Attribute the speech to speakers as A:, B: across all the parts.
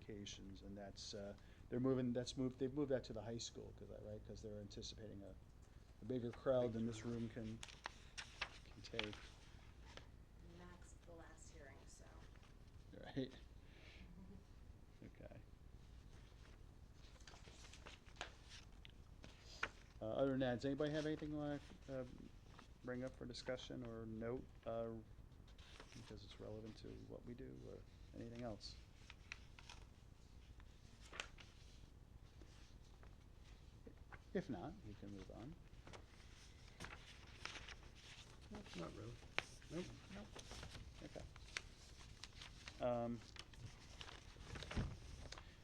A: applications, and that's, uh, they're moving, that's moved, they've moved that to the high school, because, right, because they're anticipating a, a bigger crowd than this room can, can take,
B: And that's the last hearing, so.
A: right? Okay. Uh, other than that, does anybody have anything you want to, uh, bring up for discussion or note, uh, because it's relevant to what we do or anything else? If not, we can move on.
C: Not really. Nope.
A: Okay. Um,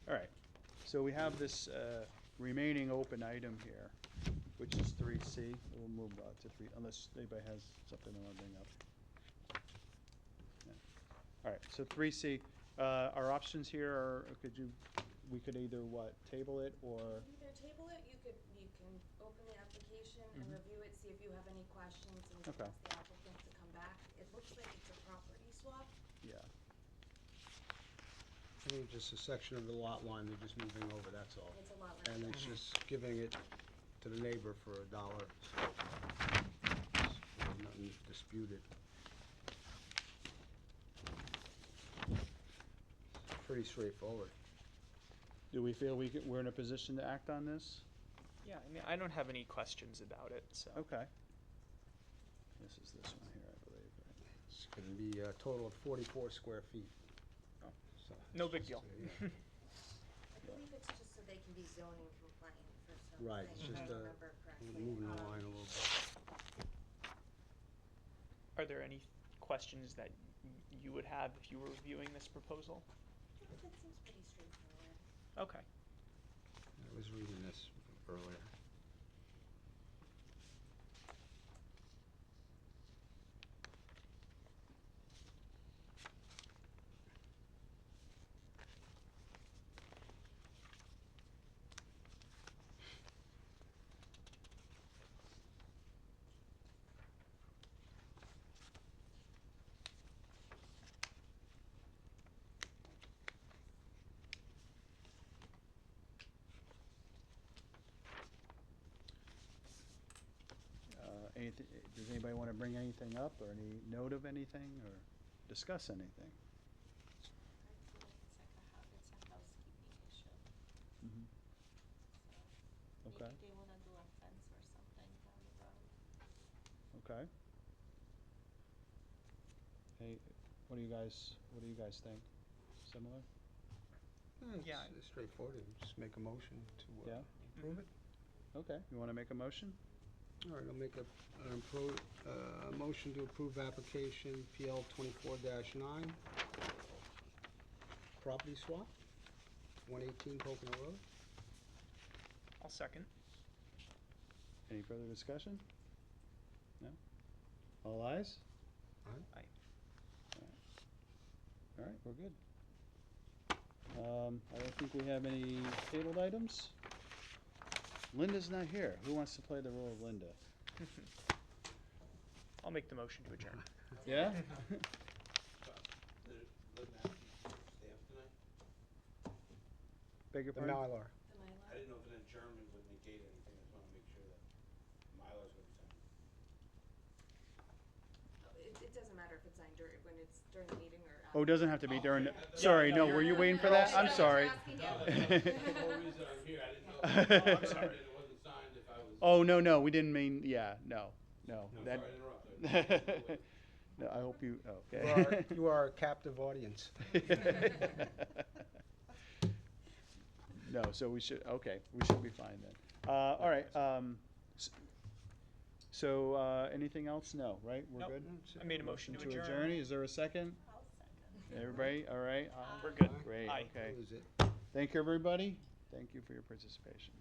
A: All right, so we have this uh, remaining open item here, which is three C. We'll move uh, to three, unless anybody has something they want to bring up. No. All right, so three C, uh, our options here are, could you, we could either what, table it or,
B: Either table it, you could, you can open the application and
A: Mhm.
B: review it, see if you have any questions, and you can
A: Okay.
B: ask the applicant to come back. It looks like it's a property swap.
A: yeah,
C: I think just a section of the lot line, they're just moving over, that's all.
B: It's a lot
C: And
B: like
C: it's
D: Mm-hmm.
B: that.
C: just giving it to the neighbor for a dollar. so there's Nothing disputed. Pretty straightforward.
A: do we feel we, could- we're in a position to act on this?
D: Yeah, I mean, I don't have any questions about it, so.
A: Okay. This is this one here, I believe, right?
C: It's gonna be a total of forty-four square feet.
D: Oh.
C: So it's
D: No big
C: just
D: deal.
C: a- yeah.
B: I believe it's just so they can be zoning compliant for some
C: Right, it's
B: things, if I
C: just, uh,
B: remember correctly.
C: Moving the
B: Um,
C: line a little bit.
D: Are there any questions that you would have if you were reviewing this proposal?
B: That seems pretty straightforward.
D: Okay.
C: I was reading this earlier.
A: Uh, anything, does anybody want to bring anything up or any note of anything or discuss anything?
E: I feel like it's like a, hou- it's a housekeeping issue, so
A: Okay.
E: maybe they wanna do a fence or something down the road.
A: Okay. Hey, what do you guys, what do you guys think? Similar?
D: Hmm, Yeah.
C: It's straightforward, just make a motion to
A: Yeah.
C: uh, approve it.
A: Okay, you want to make a motion?
C: All right, I'll make a, an appro, uh, motion to approve application PL twenty-four nine. Property swap, one eighteen Pocono Road.
D: I'll second.
A: Any further discussion? No? All eyes?
D: Aye.
A: All right, we're good. Um, I don't think we have any tabled items. Linda's not here. Who wants to play the role of Linda?
D: I'll make the motion to adjourn.
A: Yeah? Beg your
C: The
A: pardon?
C: Mylar.
B: The Mylar?
F: I didn't know if an adjournment would negate anything, I just wanna make sure that Mylar's gonna be signed.
B: Oh, It, it doesn't matter if it's signed during, when it's during the meeting or after.
A: Oh, it doesn't have to be during, the- sorry, no, were you waiting for that? I'm sorry.
F: The whole reason I'm here, I didn't know if it was adjourned and it wasn't signed, if I was.
A: Oh, no, no, we didn't mean, yeah, no, no.
F: No,
A: that-
F: sorry to interrupt. I-
A: No, I hope you, oh,
C: You are-
A: okay.
C: You are a captive audience.
A: No, so we should, okay, we should be fine then. Uh, all right, um, s- so, uh, anything else? No, right? We're
D: Nope.
A: good?
D: I made a motion to adjourn.
A: Is there a second?
E: I'll second.
A: Everybody, all right?
D: We're good.
A: Great,
D: Aye.
A: okay.
C: Lose it.
A: Thank you, everybody. Thank you for your participation.